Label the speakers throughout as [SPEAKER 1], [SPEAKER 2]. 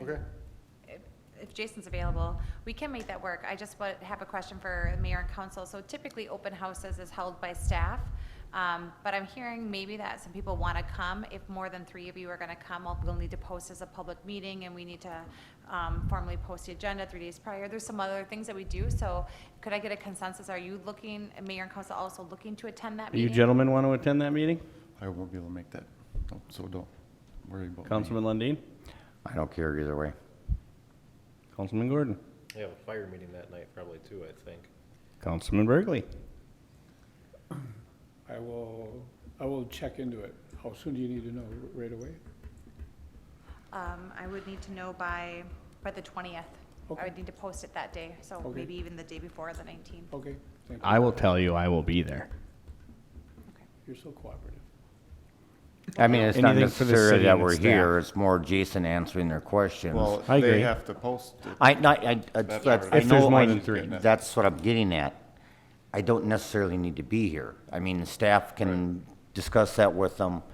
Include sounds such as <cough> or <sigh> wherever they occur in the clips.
[SPEAKER 1] Okay.
[SPEAKER 2] if- if Jason's available, we can make that work. I just wa- have a question for mayor and council. So typically, open houses is held by staff, um, but I'm hearing maybe that some people want to come. If more than three of you are going to come, we'll- we'll need to post as a public meeting, and we need to um, formally post the agenda three days prior. There's some other things that we do, so could I get a consensus? Are you looking, mayor and council also looking to attend that
[SPEAKER 3] Do you
[SPEAKER 2] meeting?
[SPEAKER 3] gentlemen want to attend that meeting?
[SPEAKER 1] I won't be able to make that, No, so don't worry about me.
[SPEAKER 3] Councilman Lundin?
[SPEAKER 4] I don't care either way.
[SPEAKER 3] Councilman Gordon?
[SPEAKER 5] They have a fire meeting that night probably too, I think.
[SPEAKER 3] Councilman Burgley?
[SPEAKER 6] I will, I will check into it. How soon do you need to know? Right away?
[SPEAKER 2] Um, I would need to know by, by the twentieth. I
[SPEAKER 6] Okay.
[SPEAKER 2] would need to post it that day, so
[SPEAKER 6] Okay.
[SPEAKER 2] maybe even the day before, the nineteenth.
[SPEAKER 6] Okay, thank you.
[SPEAKER 3] I will tell you, I will be there.
[SPEAKER 6] You're so cooperative.
[SPEAKER 4] I mean, it's not
[SPEAKER 3] Anything for the
[SPEAKER 4] necessarily
[SPEAKER 3] city
[SPEAKER 4] that
[SPEAKER 3] and
[SPEAKER 4] we're
[SPEAKER 3] its
[SPEAKER 4] here, it's more Jason answering their questions.
[SPEAKER 1] Well,
[SPEAKER 3] I agree.
[SPEAKER 1] they have to post it.
[SPEAKER 4] I, not, I, I-
[SPEAKER 1] That's
[SPEAKER 4] that's, I
[SPEAKER 1] already-
[SPEAKER 3] If there's
[SPEAKER 4] know,
[SPEAKER 3] more
[SPEAKER 4] I-
[SPEAKER 3] than three.
[SPEAKER 4] that's what I'm getting at. I don't necessarily need to be here. I mean, the staff can discuss that with them.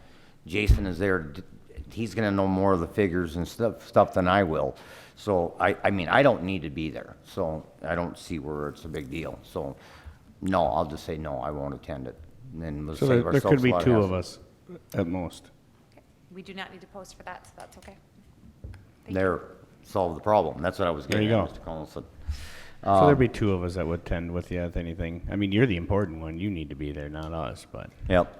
[SPEAKER 4] Jason is there, d- he's gonna know more of the figures and stuff, stuff than I will. So I, I mean, I don't need to be there, so I don't see where it's a big deal. So, no, I'll just say no, I won't attend it. And then we'll
[SPEAKER 3] So
[SPEAKER 4] save
[SPEAKER 3] there there could
[SPEAKER 4] ourselves a
[SPEAKER 3] be
[SPEAKER 4] lot
[SPEAKER 3] two of
[SPEAKER 4] hassle.
[SPEAKER 3] us at most.
[SPEAKER 2] We do not need to post for that, so that's okay. Thank you.
[SPEAKER 4] There, solve the problem. That's what I was
[SPEAKER 3] There
[SPEAKER 4] getting
[SPEAKER 3] you
[SPEAKER 4] at,
[SPEAKER 3] go.
[SPEAKER 4] Mr. Collison. Um,
[SPEAKER 3] So there'd be two of us that would attend with you, if anything. I mean, you're the important one. You need to be there, not us, but.
[SPEAKER 4] Yep.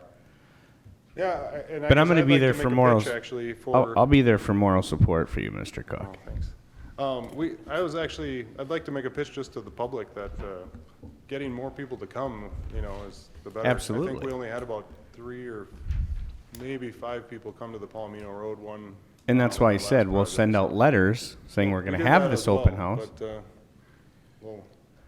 [SPEAKER 1] Yeah, I- and I.
[SPEAKER 3] But I'm
[SPEAKER 1] guess
[SPEAKER 3] gonna
[SPEAKER 1] I'd
[SPEAKER 3] be
[SPEAKER 1] like
[SPEAKER 3] there
[SPEAKER 1] to
[SPEAKER 3] for
[SPEAKER 1] make a
[SPEAKER 3] morals.
[SPEAKER 1] pitch, Actually, for.
[SPEAKER 3] I'll, I'll be there for moral support for you, Mr.
[SPEAKER 1] Oh,
[SPEAKER 3] Cook.
[SPEAKER 1] thanks. Um, we, I was actually, I'd like to make a pitch just to the public that, uh, getting more people to come, you know, is the better. I think
[SPEAKER 3] Absolutely.
[SPEAKER 1] we only had about three or maybe five people come to the Palomino Road one.
[SPEAKER 3] And that's why I
[SPEAKER 1] the last
[SPEAKER 3] said, we'll
[SPEAKER 1] project,
[SPEAKER 3] send
[SPEAKER 1] so-
[SPEAKER 3] out letters saying we're
[SPEAKER 1] We
[SPEAKER 3] going to
[SPEAKER 1] did that
[SPEAKER 3] have this
[SPEAKER 1] as well,
[SPEAKER 3] open house.
[SPEAKER 1] But, uh, well,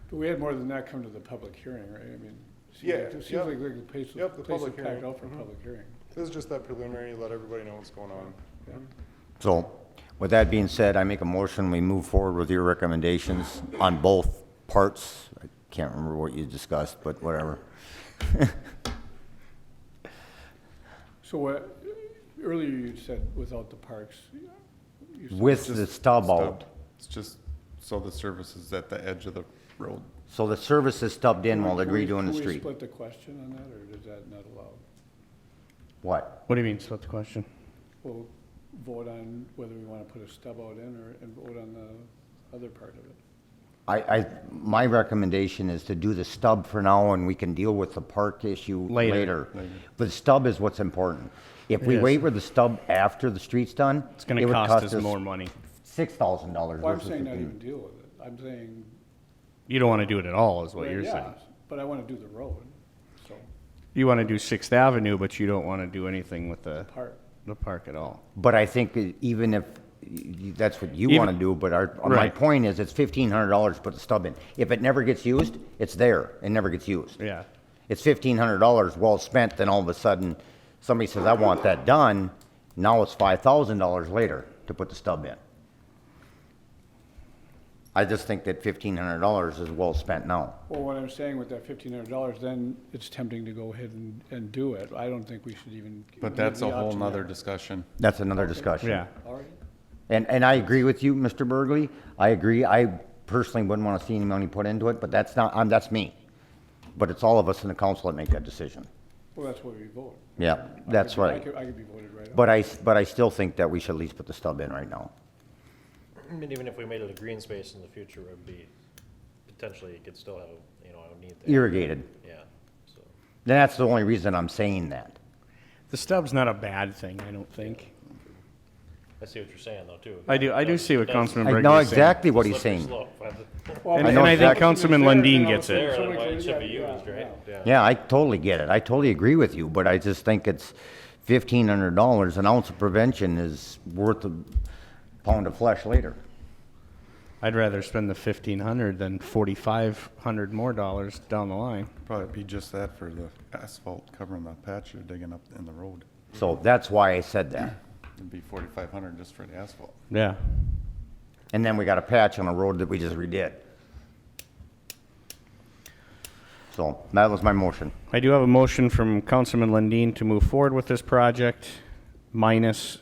[SPEAKER 6] But we had more than that come to the public hearing, right? I mean, seems
[SPEAKER 1] Yeah,
[SPEAKER 6] like- it
[SPEAKER 1] yep.
[SPEAKER 6] seems like the place,
[SPEAKER 1] Yep, the
[SPEAKER 6] place is
[SPEAKER 1] public hearing. Mm-hmm.
[SPEAKER 6] packed out for a public hearing.
[SPEAKER 1] this is just that preliminary, let everybody know what's going on.
[SPEAKER 4] So with that being said, I make a motion, we move forward with your recommendations on both parts. I can't remember what you discussed, but whatever. <laughs>
[SPEAKER 6] So what, earlier you said without the parks. you said-
[SPEAKER 4] With the stub out.
[SPEAKER 1] It's just so the service is at the edge of the road.
[SPEAKER 4] So the service is stubbed in while they're
[SPEAKER 6] Can we-
[SPEAKER 4] redoing the
[SPEAKER 6] can we
[SPEAKER 4] street.
[SPEAKER 6] split the question on that, or is that not allowed?
[SPEAKER 4] What?
[SPEAKER 3] What do you mean, split the question?
[SPEAKER 6] We'll vote on whether we want to put a stub out in or, and vote on the other part of it.
[SPEAKER 4] I, I, my recommendation is to do the stub for now and we can deal with the park issue
[SPEAKER 3] Later.
[SPEAKER 4] later. But the stub is what's important. If we
[SPEAKER 3] It is.
[SPEAKER 4] wait with the stub after the street's done,
[SPEAKER 3] It's going
[SPEAKER 4] it
[SPEAKER 3] to
[SPEAKER 4] would
[SPEAKER 3] cost
[SPEAKER 4] cost
[SPEAKER 3] us
[SPEAKER 4] us
[SPEAKER 3] more money.
[SPEAKER 4] six thousand dollars
[SPEAKER 6] Well, I'm
[SPEAKER 4] versus
[SPEAKER 6] saying not even
[SPEAKER 4] fifteen.
[SPEAKER 6] deal with it. I'm saying
[SPEAKER 3] You don't want to do it at all, is what
[SPEAKER 6] Well,
[SPEAKER 3] you're
[SPEAKER 6] yeah,
[SPEAKER 3] saying.
[SPEAKER 6] But I want to do the road, so,
[SPEAKER 3] You want to do Sixth Avenue, but you don't want to do anything with the,
[SPEAKER 6] part,
[SPEAKER 3] the park at all.
[SPEAKER 4] But I think that even if, y- y- that's what you want to
[SPEAKER 3] Even-
[SPEAKER 4] do, but our, my
[SPEAKER 3] Right.
[SPEAKER 4] point is, it's fifteen hundred dollars to put the stub in. If it never gets used, it's there, it never gets used.
[SPEAKER 3] Yeah.
[SPEAKER 4] It's fifteen hundred dollars well spent, then all of a sudden, somebody says, I want that done, now it's five thousand dollars later to put the stub in. I just think that fifteen hundred dollars is well spent now.
[SPEAKER 6] well, what I'm saying with that fifteen hundred dollars, then it's tempting to go ahead and, and do it. I don't think we should even.
[SPEAKER 7] But
[SPEAKER 6] leave
[SPEAKER 7] that's
[SPEAKER 6] the
[SPEAKER 7] a whole
[SPEAKER 6] option there.
[SPEAKER 7] nother discussion.
[SPEAKER 4] That's another discussion.
[SPEAKER 3] Yeah.
[SPEAKER 6] All right,
[SPEAKER 4] And, and I agree with you, Mr. Burgley. I agree. I personally wouldn't want to see any money put into it, but that's not, um, that's me. But it's all of us in the council that make that decision.
[SPEAKER 6] well, that's what we vote.
[SPEAKER 4] Yeah,
[SPEAKER 6] I
[SPEAKER 4] that's
[SPEAKER 6] could be- I
[SPEAKER 4] right.
[SPEAKER 6] could, I could be voted right out.
[SPEAKER 4] But I, s- but I still think that we should at least put the stub in right now.
[SPEAKER 5] And even if we made it a green space in the future, it would be, potentially it could still have, you know, I would need that.
[SPEAKER 4] Irrigated.
[SPEAKER 5] Yeah, so.
[SPEAKER 4] Then that's the only reason I'm saying that.
[SPEAKER 3] The stub's not a bad thing, I don't think.
[SPEAKER 5] I see what you're saying though, too.
[SPEAKER 3] I do, I do see what
[SPEAKER 5] That's-
[SPEAKER 3] Councilman
[SPEAKER 4] I
[SPEAKER 3] Burgley
[SPEAKER 4] know
[SPEAKER 3] is saying.
[SPEAKER 4] exactly what he's
[SPEAKER 5] slippery
[SPEAKER 4] saying.
[SPEAKER 5] slope. <laughs>
[SPEAKER 6] Well,
[SPEAKER 3] And,
[SPEAKER 4] I
[SPEAKER 3] and
[SPEAKER 6] if
[SPEAKER 4] know
[SPEAKER 3] I think
[SPEAKER 4] exactly-
[SPEAKER 3] Councilman
[SPEAKER 6] it's there,
[SPEAKER 3] Lundin
[SPEAKER 6] then I'll
[SPEAKER 3] gets
[SPEAKER 6] say
[SPEAKER 3] it.
[SPEAKER 5] There,
[SPEAKER 6] So we
[SPEAKER 5] why it
[SPEAKER 6] could-
[SPEAKER 5] should be
[SPEAKER 6] yeah,
[SPEAKER 5] used, right?
[SPEAKER 4] Yeah, I totally get it. I totally agree with you, but I just think it's fifteen hundred dollars. An ounce of prevention is worth a pound of flesh later.
[SPEAKER 3] I'd rather spend the fifteen hundred than forty-five hundred more dollars down the line.
[SPEAKER 1] Probably be just that for the asphalt covering the patch you're digging up in the road.
[SPEAKER 4] So that's why I said that.
[SPEAKER 1] It'd be forty-five hundred just for the asphalt.
[SPEAKER 3] Yeah.
[SPEAKER 4] And then we got a patch on a road that we just redid. So that was my motion.
[SPEAKER 3] I do have a motion from Councilman Lundin to move forward with this project minus